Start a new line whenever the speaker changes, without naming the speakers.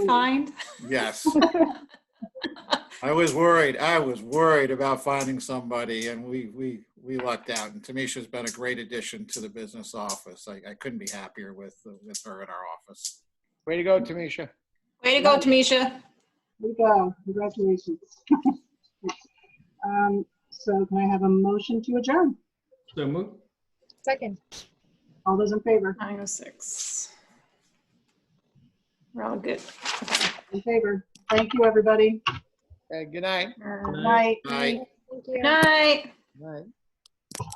kind.
Yes. I was worried. I was worried about finding somebody and we, we, we lucked out. And Tamisha's been a great addition to the business office. I, I couldn't be happier with, with her in our office. Way to go, Tamisha.
Way to go, Tamisha.
We go. Congratulations. Um, So can I have a motion to adjourn?
So moved.
Second.
All those in favor?
9:06. We're all good. Okay.
In favor. Thank you, everybody.
Uh, Good night.
All right.
Night.
Night.
Thank you.
Night.
Night.